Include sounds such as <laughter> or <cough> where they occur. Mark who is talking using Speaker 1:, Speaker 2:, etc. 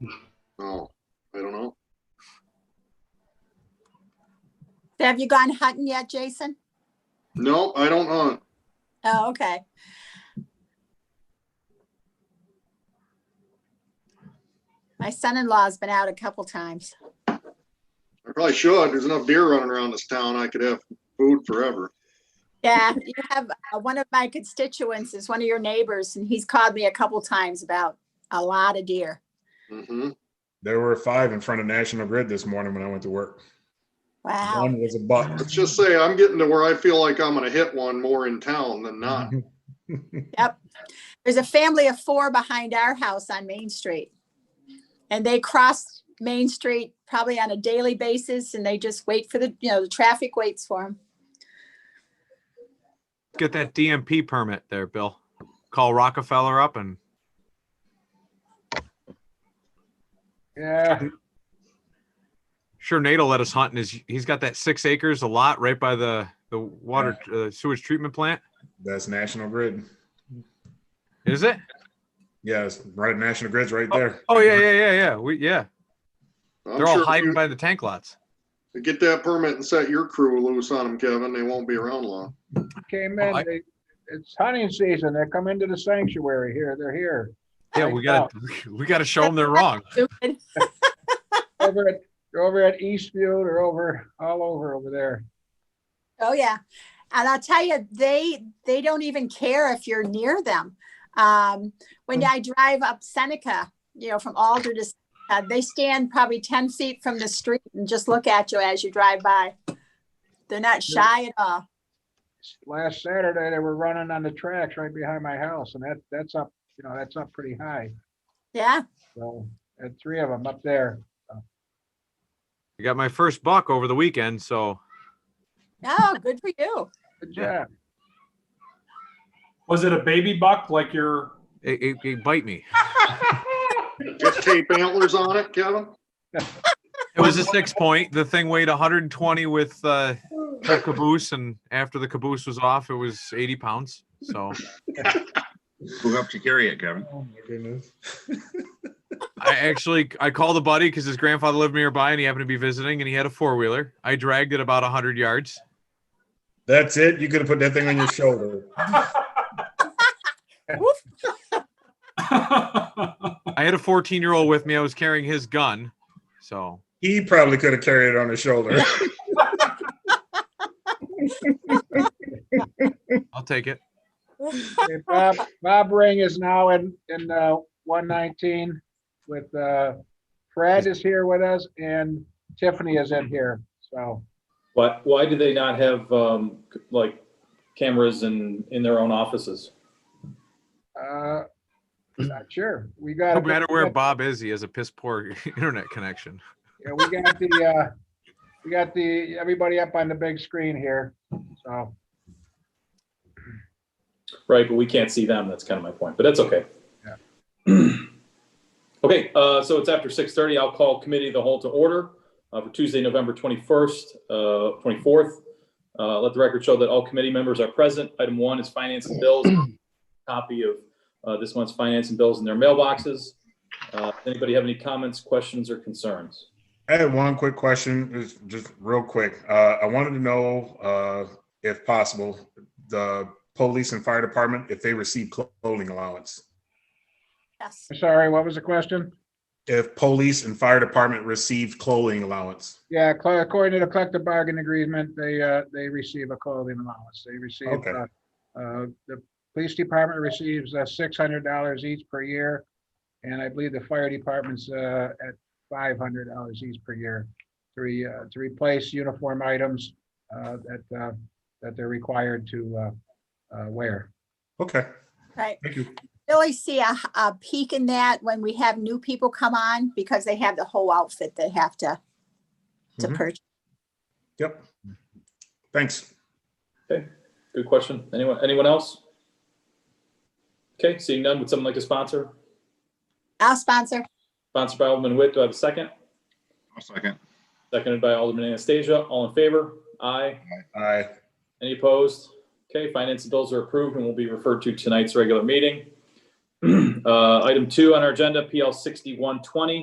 Speaker 1: No, Oh, I don't know.
Speaker 2: Have you gone hunting yet, Jason?
Speaker 1: No, I don't know.
Speaker 2: Oh, okay. My son-in-law's been out a couple times.
Speaker 1: I probably should. There's enough deer running around this town. I could have food forever.
Speaker 2: Yeah, you have, uh, one of my constituents is one of your neighbors, and he's called me a couple times about a lot of deer.
Speaker 1: hmm
Speaker 3: There were five in front of National Grid this morning when I went to work.
Speaker 2: Wow.
Speaker 3: One was a buck.
Speaker 1: Let's just say I'm getting to where I feel like I'm gonna hit one more in town than not.
Speaker 2: There's a family of four behind our house on Main Street. And they cross Main Street probably on a daily basis, and they just wait for the, you know, the traffic waits for them.
Speaker 4: Get that DMP permit there, Bill. Call Rockefeller up and
Speaker 5: Yeah,
Speaker 4: <laughs> sure Nate will let us hunt in his, he's got that six acres a lot right by the, the water uh, sewage treatment plant.
Speaker 3: <laughs> That's National Grid.
Speaker 4: Is it?
Speaker 3: Yes, right. National Grid's right there.
Speaker 4: Oh, yeah, yeah, yeah, yeah. We, yeah,
Speaker 1: I'm
Speaker 4: they're
Speaker 1: sure
Speaker 4: all
Speaker 1: if
Speaker 4: hiding
Speaker 1: you-
Speaker 4: by the tank lots.
Speaker 1: you Get that permit and set your crew loose on them, Kevin. They won't be around long.
Speaker 5: came
Speaker 4: Oh,
Speaker 5: in,
Speaker 4: I-
Speaker 5: they, it's hunting season, they come into the sanctuary here, they're here.
Speaker 4: Yeah, we gotta, <laughs> we gotta show them they're wrong.
Speaker 2: Stupid.
Speaker 5: Over at, they're over at Eastview, they're over, all over over there.
Speaker 2: Oh yeah, and I'll tell you, they they don't even care if you're near them. Um,
Speaker 3: Hmm.
Speaker 2: when I drive up Seneca, you know, from Alder to, Seneca, they stand probably ten feet from the street and just look at you as you drive by. They're not
Speaker 5: Yeah.
Speaker 2: shy at all.
Speaker 5: Last Saturday, they were running on the tracks right behind my house, and that, that's up, you know, that's up pretty high,
Speaker 2: Yeah,
Speaker 5: so, and three of them up there.
Speaker 4: I got my first buck over the weekend, so
Speaker 2: oh, good for you.
Speaker 5: Good
Speaker 4: Yeah.
Speaker 5: job.
Speaker 6: Was it a baby buck like your?
Speaker 4: it, it, it bite me.
Speaker 1: Get tape antlers on it, Kevin.
Speaker 4: It was a six point. The thing weighed 120 with uh, the caboose, and after the caboose was off, it was 80 pounds. So
Speaker 7: Who helped you carry it, Kevin?
Speaker 3: Oh, my goodness.
Speaker 4: I actually I called a buddy because his grandfather lived nearby, and he happened to be visiting, and he had a four wheeler. I dragged it about 100 yards.
Speaker 3: That's it. You could have put that thing on your shoulder.
Speaker 4: I had a 14 year old with me. I was carrying his gun, so
Speaker 3: He probably could have carried it on his shoulder.
Speaker 4: I'll take it.
Speaker 5: Okay, Bob, Bob Ring is now in, in, uh, one nineteen with, uh, Fred is here with us, and Tiffany is in here, so.
Speaker 6: <laughs> Why, why do they not have, um, like cameras in, in their own offices?
Speaker 5: Uh, not <clears throat> sure. We got.
Speaker 4: No matter where Bob is, he has a piss poor <laughs> internet connection.
Speaker 5: Yeah, we got the, uh, we got the, everybody up on the big screen here, so.
Speaker 6: Right, but we can't see them. That's kind of my point, but that's okay.
Speaker 5: Yeah.
Speaker 6: Okay, uh, so it's after six thirty. I'll call committee of the whole to order uh, for Tuesday, November twenty-first, uh, twenty-fourth. Uh, let the record show that all committee members are present. Item one is finance and bills. Copy of, uh, this month's finance and bills in their mailboxes. Uh, anybody have any comments, questions or concerns?
Speaker 3: I had one quick question, it's just real quick. Uh, I wanted to know, uh, if possible, the police and fire department, if they receive clothing allowance.
Speaker 2: Yes.
Speaker 5: Sorry, what was the question?
Speaker 3: If police and fire department receive clothing allowance.
Speaker 5: Yeah, cl- according to the collective bargaining agreement, they, uh, they receive a clothing allowance. They receive,
Speaker 3: Okay.
Speaker 5: uh, uh, the police department receives, uh, six hundred dollars each per year. And I believe the fire department's, uh, at five hundred dollars each per year. To, re- uh, to replace uniform items, uh, that, uh, that they're required to, uh, uh, wear.
Speaker 3: Okay,
Speaker 2: Right.
Speaker 3: thank you.
Speaker 2: Really see a, a peak in that when we have new people come on because they have the whole outfit they have to to
Speaker 3: Mhm.
Speaker 2: purchase.
Speaker 3: Yep. Thanks.
Speaker 6: Good question. Anyone, anyone else? Okay, seeing none, would someone like to sponsor?
Speaker 2: I'll sponsor.
Speaker 6: Sponsored by Alderman Witt. Do I have a second?
Speaker 7: I'll second.
Speaker 6: Seconded by Alderman Anastasia. All in favor? Aye.
Speaker 3: Aye.
Speaker 6: Any opposed? Okay, finance and bills are approved and will be referred <clears throat> to tonight's regular meeting. Uh, Item two on our agenda, PL 6120,